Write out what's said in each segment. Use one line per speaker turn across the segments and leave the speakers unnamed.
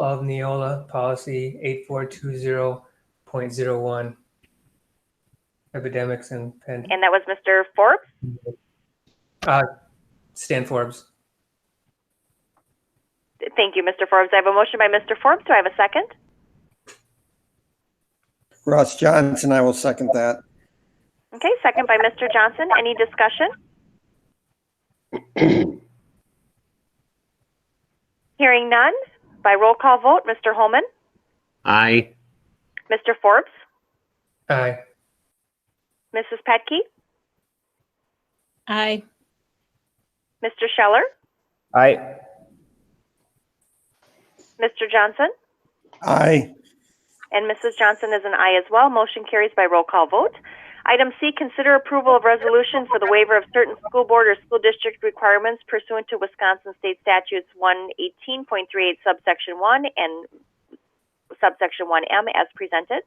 of Neola Policy 8420.01, Epidemics and Pand-
And that was Mr. Forbes?
uh, Stan Forbes.
Thank you, Mr. Forbes. I have a motion by Mr. Forbes. Do I have a second?
Ross Johnson, I will second that.
Okay, second by Mr. Johnson. Any discussion? Hearing none, by roll call vote, Mr. Holman,
Aye.
Mr. Forbes,
Aye.
Mrs. Petke,
Aye.
Mr. Scheller,
Aye.
Mr. Johnson,
Aye.
and Mrs. Johnson is an aye as well. Motion carries by roll call vote. Item C, consider approval of resolution for the waiver of certain school board or school district requirements pursuant to Wisconsin State Statutes 118.38 subsection 1 and subsection 1M as presented.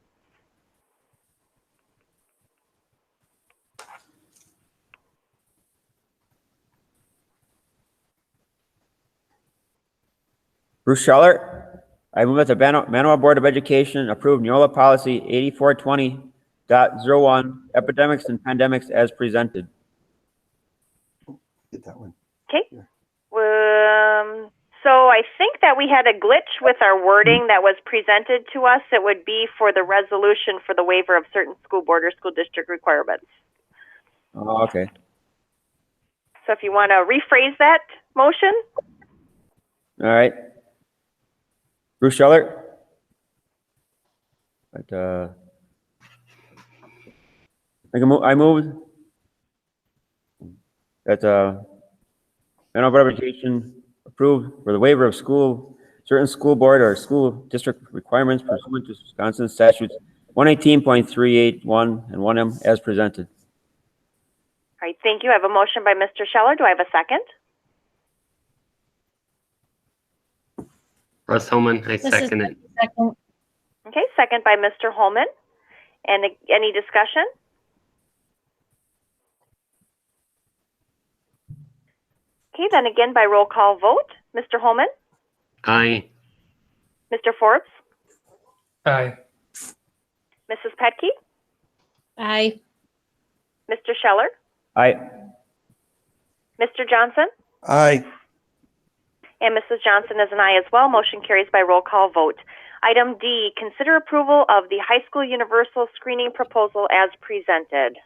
Bruce Scheller. I move that the Mano- Manawa Board of Education approve Neola Policy 8420.01, Epidemics and Pandemics as presented.
Get that one.
Okay. Um, so I think that we had a glitch with our wording that was presented to us. It would be for the resolution for the waiver of certain school board or school district requirements.
Oh, okay.
So if you want to rephrase that motion,
All right. Bruce Scheller. But, uh, I can move, I move that, uh, Manawa Board of Education approved for the waiver of school, certain school board or school district requirements pursuant to Wisconsin statutes one eighteen point three eight one and one M as presented.
All right, thank you. I have a motion by Mr. Scheller. Do I have a second?
Russ Holman, I
This is-
second it.
Second.
Okay, second by Mr. Holman. And a- any discussion? Okay, then again by roll call vote, Mr. Holman,
Aye.
Mr. Forbes,
Aye.
Mrs. Petke,
Aye.
Mr. Scheller,
Aye.
Mr. Johnson,
Aye.
and Mrs. Johnson is an aye as well. Motion carries by roll call vote. Item D, consider approval of the high school universal screening proposal as presented.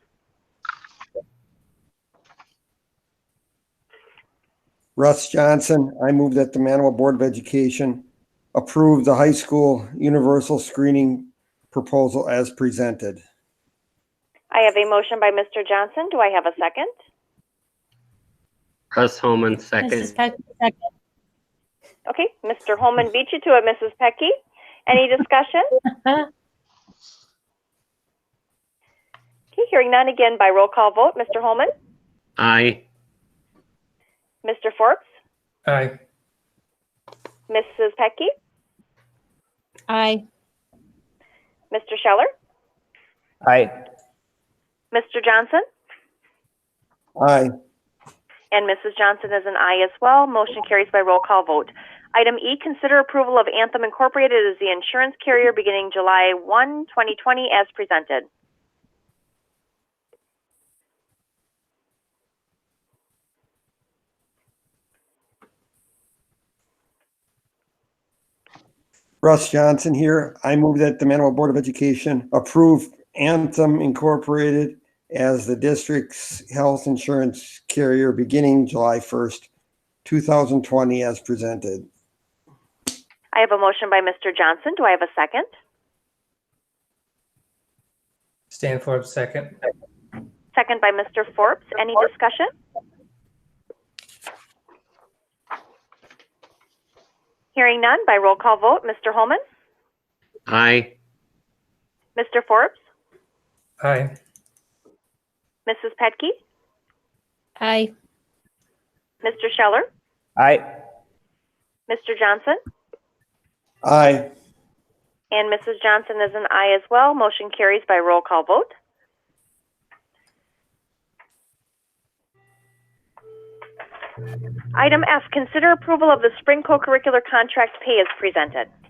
Russ Johnson, I move that the Manawa Board of Education approve the high school universal screening proposal as presented.
I have a motion by Mr. Johnson. Do I have a second?
Russ Holman,
Mrs.
second.
Peck, second.
Okay, Mr. Holman beat you to it, Mrs. Pecky. Any discussion? Okay, hearing none again by roll call vote, Mr. Holman,
Aye.
Mr. Forbes,
Aye.
Mrs. Pecky,
Aye.
Mr. Scheller,
Aye.
Mr. Johnson,
Aye.
and Mrs. Johnson is an aye as well. Motion carries by roll call vote. Item E, consider approval of Anthem Incorporated as the insurance carrier beginning July 1, 2020 as presented.
Russ Johnson here. I move that the Manawa Board of Education approve Anthem Incorporated as the district's health insurance carrier beginning July 1st, 2020 as presented.
I have a motion by Mr. Johnson. Do I have a second?
Stan Forbes, second.
Second by Mr. Forbes. Any discussion? Hearing none, by roll call vote, Mr. Holman,
Aye.
Mr. Forbes,
Aye.
Mrs. Petke,
Aye.
Mr. Scheller,
Aye.
Mr. Johnson,
Aye.
and Mrs. Johnson is an aye as well. Motion carries by roll call vote. Item F, consider approval of the spring co-curricular contract pay as presented.